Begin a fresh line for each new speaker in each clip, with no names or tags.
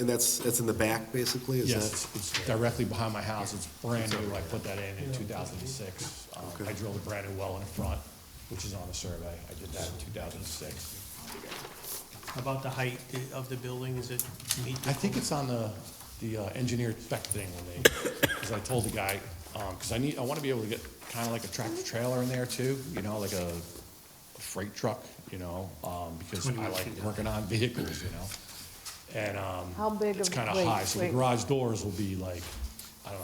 And that's, that's in the back, basically? is
Yes,
that-
it's- it's directly behind my house, it's brand new, I put that in in 2006. Um, I drilled a brand new well in front, which is on the survey, I did that in 2006.
About the height of the building, is it meet? the-
I think it's on the, the uh, engineered spec thing when they, because I told the guy, um 'cause cause I need, I wanna be able to get kinda like a tractor trailer in there too, you know, like a a freight truck, you know, um, because I like working on vehicles, you know? And, um.
How big
It's
of-
kinda
wait,
high, so the
wait.
garage doors will be like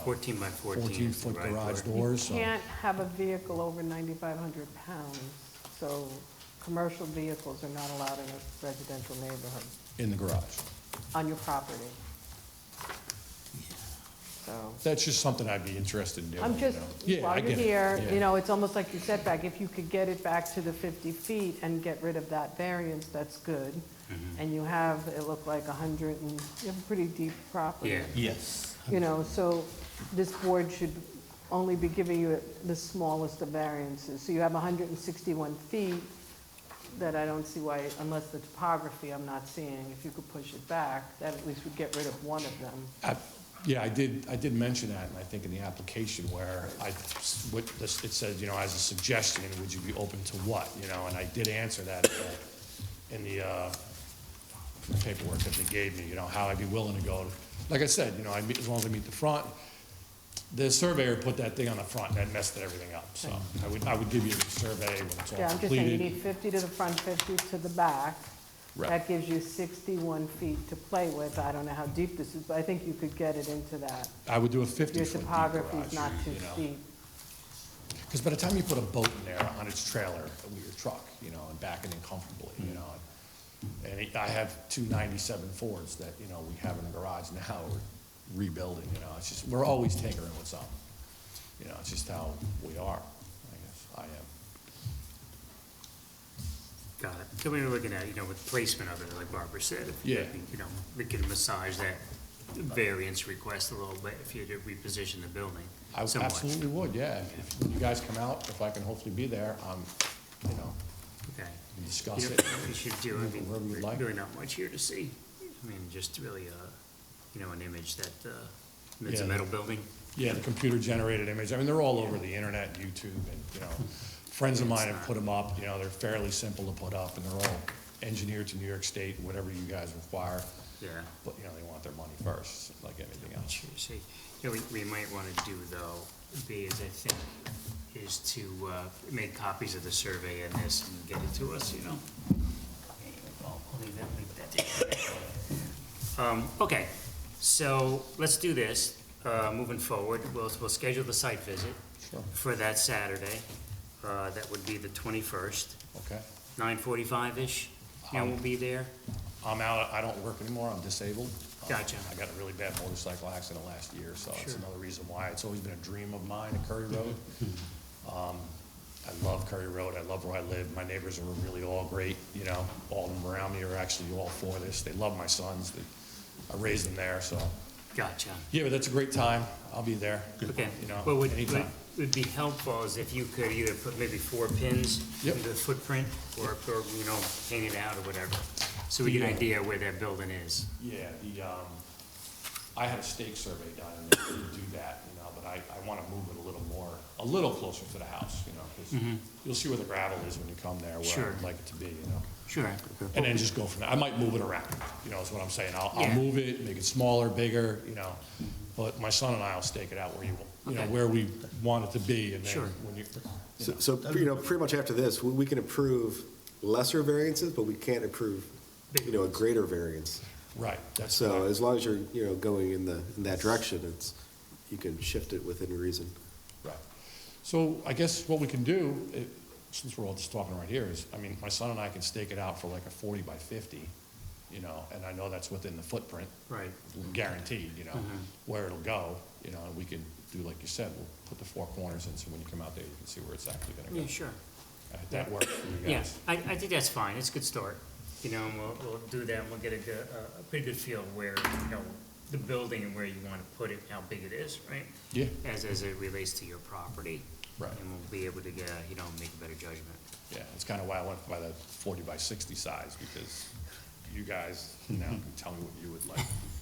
14 by 14.
fourteen
is the
foot
right
garage
word.
doors, so.
Can't have a vehicle over 9,500 pounds, so commercial vehicles are not allowed in a residential neighborhood
in the garage.
on your property. So,
That's just something I'd be interested in doing.
I'm
you
just,
know? Yeah, I
while you're
get it.
here,
Yeah.
you know, it's almost like your setback, if you could get it back to the 50 feet and get rid of that variance, that's good.
Mm-hmm.
And you have, it looked like 100, and you have a pretty deep property.
Yeah.
Yes.
You know, so this board should only be giving you the smallest of variances. So you have 161 feet that I don't see why, unless the topography I'm not seeing, if you could push it back, that at least would get rid of one of them.
I- Yeah, I did, I did mention that, and I think in the application where I, what, this- it said, you know, as a suggestion, would you be open to what, you know, and I did answer that in the- in the uh, paperwork that they gave me, you know, how I'd be willing to go. Like I said, you know, I meet, as long as I meet the front, the surveyor put that thing on the front, and that messed everything up, so I would, I would give you the survey when it's all completed.
Yeah, I'm just saying, you need 50 to the front, 50 to the back.
Right.
That gives you 61 feet to play with. I don't know how deep this is, but I think you could get it into that.
I would do a fifty
Your
foot deep
topography's
garage,
not too
you know.
steep.
Because by the time you put a boat in there on its trailer with your truck, you know, and backing in comfortably, you know. And it- I have two ninety-seven Fords that, you know, we have in the garage now, we're rebuilding, you know, it's just, we're always tinkering with something. You know, it's just how we are, I guess, I am.
Got it. So we we're looking at, you know, with placement of it, like Barbara said. if you-
Yeah.
You know, we can massage that variance request a little bit if you had to reposition the building
I
somewhat.
absolutely would, yeah. If you guys come out, if I can hopefully be there, um, you know, we
Okay.
can
You
discuss
know,
it.
what we should do, I
Move it
mean,
wherever you'd like.
really not much here to see. I mean, just really, uh, you know, an image that, uh, it's a
Yeah.
metal building.
Yeah, the computer-generated image, I mean, they're all over the internet, YouTube, and, you know, friends of mine have put them up, you know, they're fairly simple to put up, and they're all engineered to New York State, whatever you guys require,
Yeah.
but, you know, they want their money first, like anything else.
Sure, see, you know, we, we might wanna do though, B is I think, is to, uh, make copies of the survey and this and get it to us, you know? I'll I'll leave that, leave that to you. Um, okay, so let's do this, uh, moving forward, we'll, we'll schedule the site visit
Sure.
for that Saturday, uh, that would be the twenty-first,
Okay,
nine forty-five-ish, and we'll be there.
I'm out, I don't work anymore, I'm disabled. Um,
Gotcha.
I got a really bad motorcycle accident last year, so it's
Sure.
another reason why, it's always been a dream of mine, at Curry Road. Um, I love Curry Road, I love where I live, my neighbors are really all great, you know, all of them around me are actually all for this, they love my sons, They- I raised them there, so.
Gotcha.
Yeah, but that's a great time, I'll be there,
Okay,
you know,
what would, would,
anytime.
would be helpful is if you could either put maybe four pins
Yep.
into the footprint, or, or, you know, paint it out or whatever, so we get an idea where that building is.
Yeah, the, um, I had a stake survey done, and they didn't do that, you know, but I, I wanna move it a little more, a little closer to the house, you know, 'cause you'll see where the gravel is when you come there, where
Mm-hmm. Sure.
I'd like it to be, you know?
Sure.
And then just go from there. I might move it around, you know, is what I'm saying. I'll, I'll
Yeah.
move it, make it smaller, bigger, you know. But my son and I will stake it out where you, you know,
Okay.
where we want it to be and then
Sure.
when you, you
So,
know.
so, you know, pretty much after this, we- we can approve lesser variances, but we can't approve, you know, a greater variance.
right, that's.
So
correct.
as long as you're, you know, going in the, in that direction, it's, you can shift it within reason.
Right. So I guess what we can do, it- since we're all just talking right here, is, I mean, my son and I can stake it out for like a forty by fifty, you know, and I know that's within the footprint.
Right. Mm-hmm.
Guaranteed, you know, where it'll go, you know, and we can do, like you said, we'll put the four corners in, so when you come out there, you can see where it's actually gonna
Yeah,
go.
sure.
Uh, That works for you
Yeah,
guys.
I, I think that's fine, it's a good start, you know, and we'll, we'll do that, and we'll get a, good- a, a pretty good feel of where, you know, the building and where you wanna put it, how big it is, right?
Yeah.
As, as it relates to your property.
Right.
And we'll be able to get, a, you know, make a better judgment.
Yeah, that's kind of why I went by the forty by sixty size, because you guys now can tell me what you would like.